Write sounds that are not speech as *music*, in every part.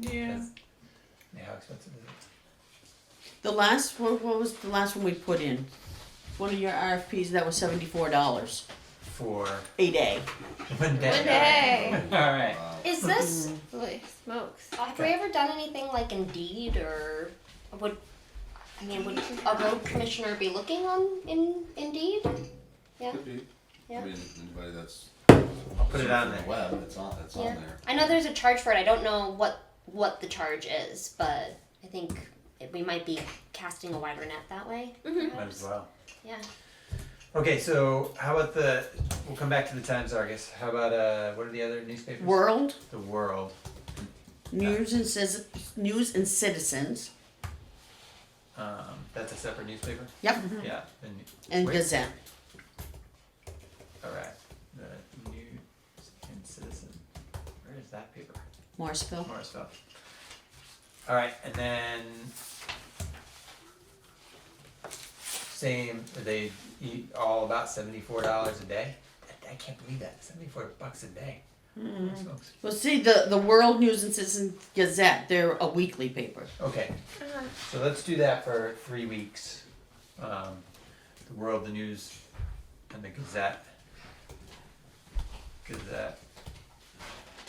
Yeah. Yeah, how expensive is it? The last, what, what was the last one we put in? One of your RFPs, that was seventy-four dollars, For *laughs* a day. one day. *laughs* One day. Alright. Is this? Holy smokes. Have we ever done anything like Indeed or would? I mean, would a road commissioner be looking on in Indeed? Could be. Yeah. I mean, anybody that's. put it on surfing the there. Web, it's on, it's Yeah. on there. I know there's a charge for it. I don't know what what the charge is, but I think it, we might be casting a wider net that way. Might as well. Yeah. Okay, so how about the? We'll come back to the Times Argus. How about uh? What are the other newspapers? World, The World. News and Ciz- News and Citizens, Um, that's a separate newspaper. yep, Yeah. And, Mm-hmm. and Wait. Gazette. all right. The News and Citizen. Where is that paper? Morrisville. More stuff. All right, and then same. Are they e- all about seventy four dollars a day? I, I can't believe that seventy four bucks a day. Hmm. Holy smokes. Well, see, the, the World News and Citizen Gazette, they're a weekly paper. Okay. Uh-huh. So let's do that for three weeks. Um, the World, the News, and the Gazette. Gazette.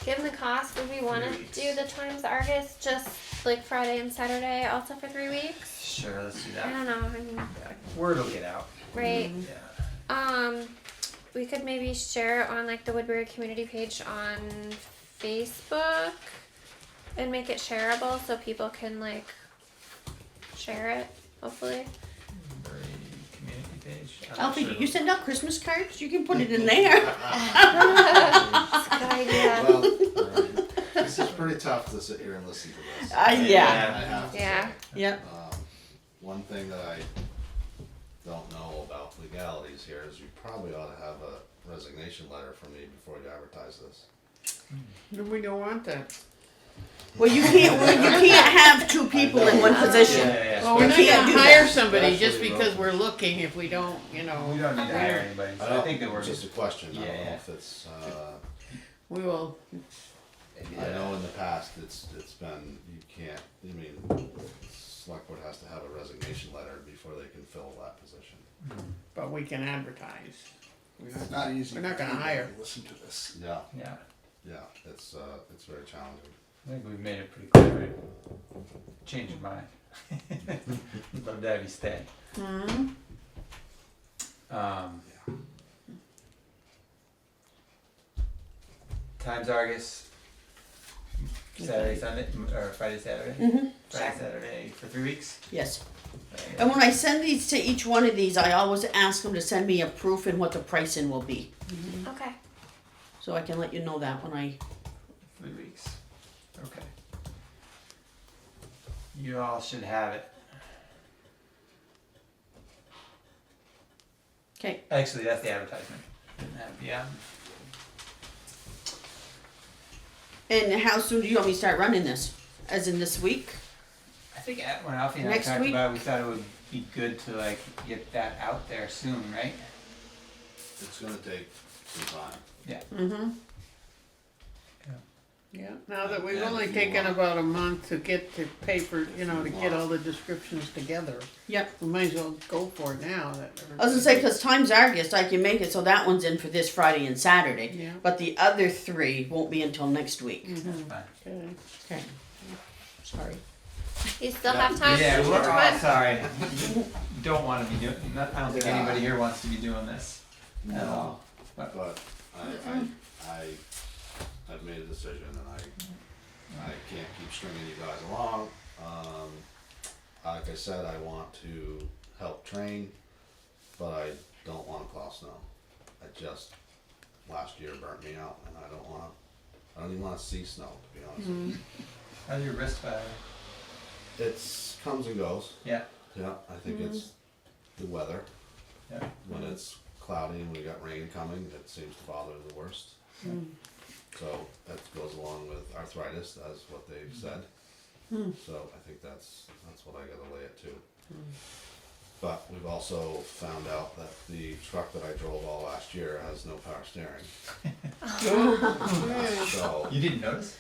Given the cost, would we want to Three weeks. do the Times Argus just like Friday and Saturday also for three weeks? Sure, let's do I that. don't know. I mean, Yeah, Word will get out. right? Yeah. Um, we could maybe share it on like the Woodbury community page on Facebook and make it shareable so people can like share it. Hopefully, Very community page. I'm not Alfie, sure you it'll- send out Christmas cards? You can put it in there. *laughs* it's a good idea. Well, alright. this is pretty tough to sit here and listen to this. Uh, yeah, I have to say. Yeah. *laughs* yep. Um, one thing that I don't know about legalities here is you probably ought to have a resignation letter from me before you advertise this. We don't want that. Well, you can't, well, you can't have *laughs* two people in one Yeah, position. yeah, yeah. Well, we're not can't do gonna hire that. somebody just Actually, because no. we're looking if we don't, you we know, don't need to hire anybody. So I, don't- think that we're Just a question, I Yeah, don't know yeah. if it's, uh, we will. I Yeah. know in the past, it's, it's been, you can't, I mean, select board has to have a resignation letter before they can fill that position. But we can advertise. It's not easy. We're not gonna for anybody hire. to Listen to this. Yeah, Yeah. yeah, it's, uh, it's very challenging. I think we've made it pretty clear. Right? Change your mind. *laughs* Love to have you stay. Um, Times Argus, Saturday, Sunday, m- or Friday, Saturday. Mhm. Friday, Saturday for three weeks. Yes. Right. And when I send these to each one of these, I always ask them to send me a proof and what the pricing will be. Okay. So I can let you know that when I, Three weeks. Okay. You all should have it. okay, Actually, that's the advertisement. Uh, Yeah. and how soon do you want me to start running this? As in this week? I think at- when Alfie and I Next talked week? about, it, we thought it would be good to like get that out there soon, right? It's gonna take some time. Mm-hmm. Yeah, now that we've Yeah, only if you taken want. about a month to get the paper, you know, to If you get want. all the descriptions together, Yep. we might as well go for it now that. I was gonna say, cause time's Argus, I can make it so that one's in for this Friday and Saturday. Yeah. But the other three won't be until next week. That's fine. Okay. Okay. Sorry. You still Yeah. have time. Yeah, Which we're all one? sorry. *laughs* Don't want to be doing. Not, I don't think anybody here wants to be doing this at No. all. But But I, I, I, I've made a decision and I, I can't keep stringing you guys along. Um, like I said, I want to help train, but I don't wanna plow snow. I just, last year burnt me out and I don't wanna, I don't even wanna see snow, to be honest. with you. how's your wrist by? the way? It's comes and goes, Yeah. yeah, I think it's the weather. Yeah. when it's cloudy and we got rain coming, that seems to bother the worst. So that goes along with arthritis, that's what they've said. So I think that's, that's what I gotta lay it to. But we've also found out that the truck that I drove all last year has no power steering, Ooh, so, You didn't notice?